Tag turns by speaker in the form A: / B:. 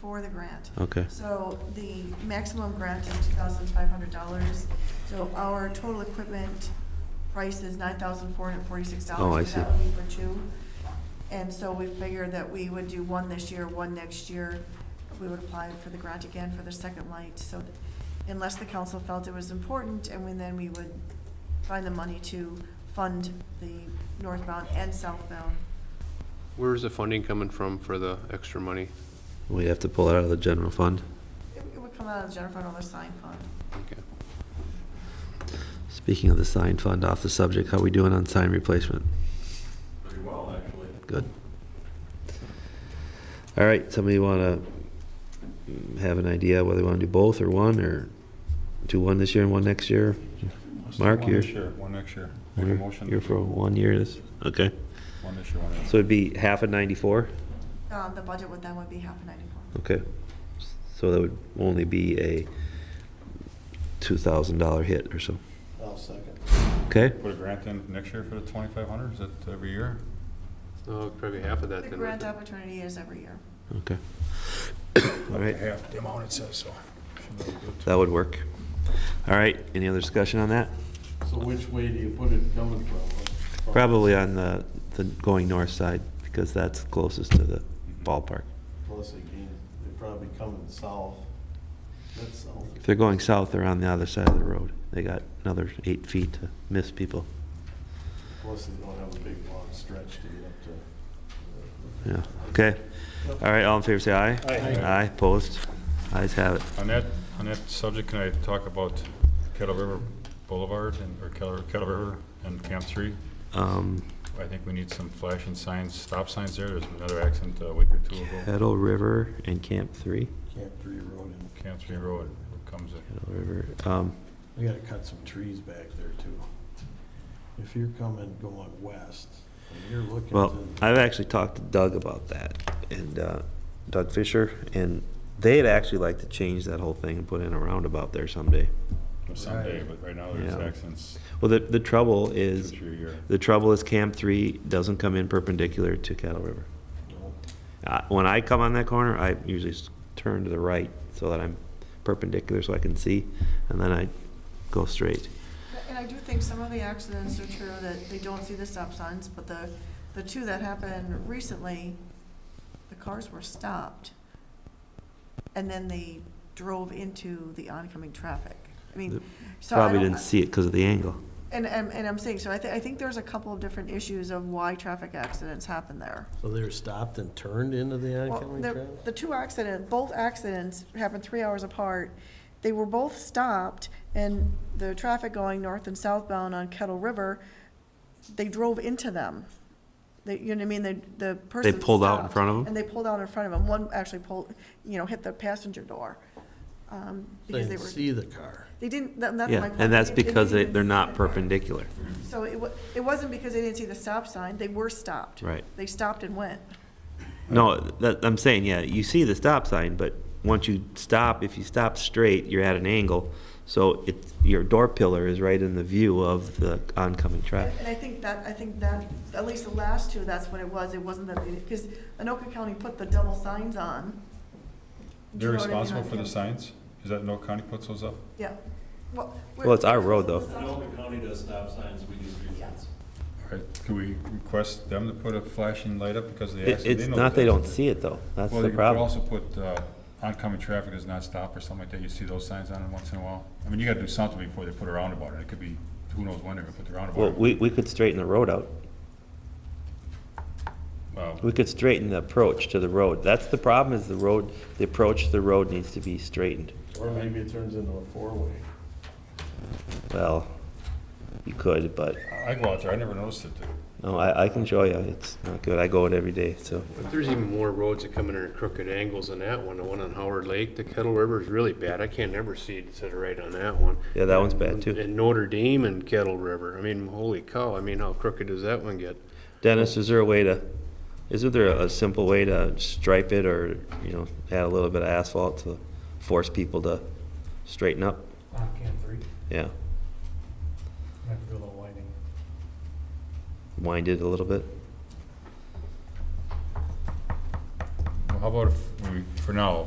A: for the grant.
B: Okay.
A: So the maximum grant is two thousand five hundred dollars. So our total equipment price is nine thousand four hundred forty-six dollars.
B: Oh, I see.
A: That would be for two. And so we figured that we would do one this year, one next year. We would apply for the grant again for the second light. So th- unless the council felt it was important, and we- then we would find the money to fund the northbound and southbound.
C: Where's the funding coming from for the extra money?
B: We have to pull it out of the general fund.
A: It it would come out of the general fund or the sign fund.
C: Okay.
B: Speaking of the sign fund, off the subject, how we doing on sign replacement?
D: Pretty well, actually.
B: Good. All right, somebody want to have an idea whether they want to do both or one, or do one this year and one next year?
D: Let's do
B: Mark,
D: one
B: you're-
D: this year, One next year. Make a
B: You're-
D: motion.
B: You're for one year, this, okay.
D: One this year, one next.
B: So it'd be half of 94?
A: Um, the budget would then would be half a ninety-four.
B: Okay. So that would only be a $2,000 hit or so.
E: I'll second.
B: Okay?
D: Put a grant in next year for the twenty-five hundred, is that every year?
C: Oh, probably half of that
A: The
C: then.
A: grant opportunity is every year.
B: Okay. All right,
D: Half the amount it says, so.
B: that would work. All right, any other discussion on that?
E: So which way do you put it coming from?
B: Probably uh, on the, the going north side, because that's closest to the ballpark.
E: Plus again, they're probably coming south. That's south.
B: If they're going south, they're on the other side of the road. They got another eight feet to miss people.
E: Plus they don't have a big long stretch to get up to.
B: Yeah, okay. All right, all in favor, say aye.
E: Aye.
B: Aye, opposed? Ayes have it.
D: On that, on that subject, can I talk about Kettle River Boulevard and, or Kettle, Kettle River and Camp Three?
B: Um,
D: I think we need some flashing signs, stop signs there, there's another accident a week or two ago.
B: Kettle River and Camp Three,
E: Camp Three Road and.
D: Camp Three Road, it comes in.
B: Kettle River, um,
E: We gotta cut some trees back there too. If you're coming going west and you're looking to.
B: Well, I've actually talked to Doug about that, and uh, Doug Fisher, and they'd actually like to change that whole thing and put in a roundabout there someday.
D: someday, but right now there's
B: Yeah.
D: accidents
B: Well, the, the trouble
D: two,
B: is,
D: three a year.
B: the trouble is Camp Three doesn't come in perpendicular to Cattle River.
E: No.
B: Uh, When I come on that corner, I usually s- turn to the right so that I'm perpendicular so I can see, and then I go straight.
A: And I do think some of the accidents are true that they don't see the stop signs, but the, the two that happened recently, the cars were stopped. And then they drove into the oncoming traffic. I mean, so I
B: Probably
A: don't-
B: didn't see it because of the angle.
A: And, and, and I'm saying, so I thi- I think there's a couple of different issues of why traffic accidents happen there.
E: So they were stopped and turned into the
A: Well,
E: oncoming
A: the-
E: traffic?
A: The two accident, both accidents happened three hours apart. They were both stopped, and the traffic going north and southbound on Kettle River, they drove into them. They, you know what I mean, the, the person
B: pulled out in
A: stopped,
B: front of 'em?
A: And they pulled out in front of them. One actually pulled, you know, hit the passenger door. um,
E: They
A: Because they
E: didn't
A: were,
E: see the car.
A: they didn't, that- that's my
B: Yeah,
A: point.
B: and that's
A: They- they
B: because
A: didn't
B: they-
A: even
B: they're
A: see
B: not
A: the car.
B: perpendicular.
A: So it wa, it wasn't because they didn't see the stop sign, they were stopped.
B: Right.
A: They stopped and went.
B: No, that, I'm saying, yeah, you see the stop sign, but once you stop, if you stop straight, you're at an angle. So it, your door pillar is right in the view of the oncoming
A: And
B: traffic.
A: and I think that, I think that, at least the last two, that's what it was, it wasn't that, because Anoka County put the double signs on. Do you know
D: They're
A: what I mean?
D: responsible for the signs? Is that no county puts those up?
A: Yeah. Well, we're-
B: Well, it's our road, though.
F: Anoka County does stop signs, we do street
A: Yeah.
F: signs.
D: All right, Can we request them to put a flashing light up because of the
B: It-
D: accident?
B: It's
D: know
B: not, they
D: that.
B: don't see it though. That's
D: Well,
B: the
D: you could
B: problem.
D: also put uh, oncoming traffic does not stop or something like that. You see those signs on it once in a while? I mean, you gotta do something before they put a roundabout in. It could be, who knows when they're gonna put the
B: Well,
D: roundabout. in.
B: we, we could straighten the road out.
D: Well,
B: We could straighten the approach to the road. That's the problem is the road, the approach to the road needs to be straightened.
E: Or maybe it turns into a four-way.
B: Well, you could, but,
D: Uh, I go out there, I never noticed it.
B: no, I, I can show you. It's not good. I go it every day, so.
C: But there's even more roads that come in at crooked angles than that one, the one on Howard Lake, the Kettle River is really bad, I can't ever see it set right on that one.
B: Yeah, that one's bad, too.
C: And Notre Dame and Kettle River, I mean, holy cow, I mean, how crooked does that one get?
B: Dennis, is there a way to, isn't there a simple way to stripe it or, you know, add a little bit of asphalt to force people to straighten up?
G: On Uh, Cam three,
B: Yeah,
G: I have to do a little lighting.
B: wind it a little bit.
D: Well, How about if, we for now,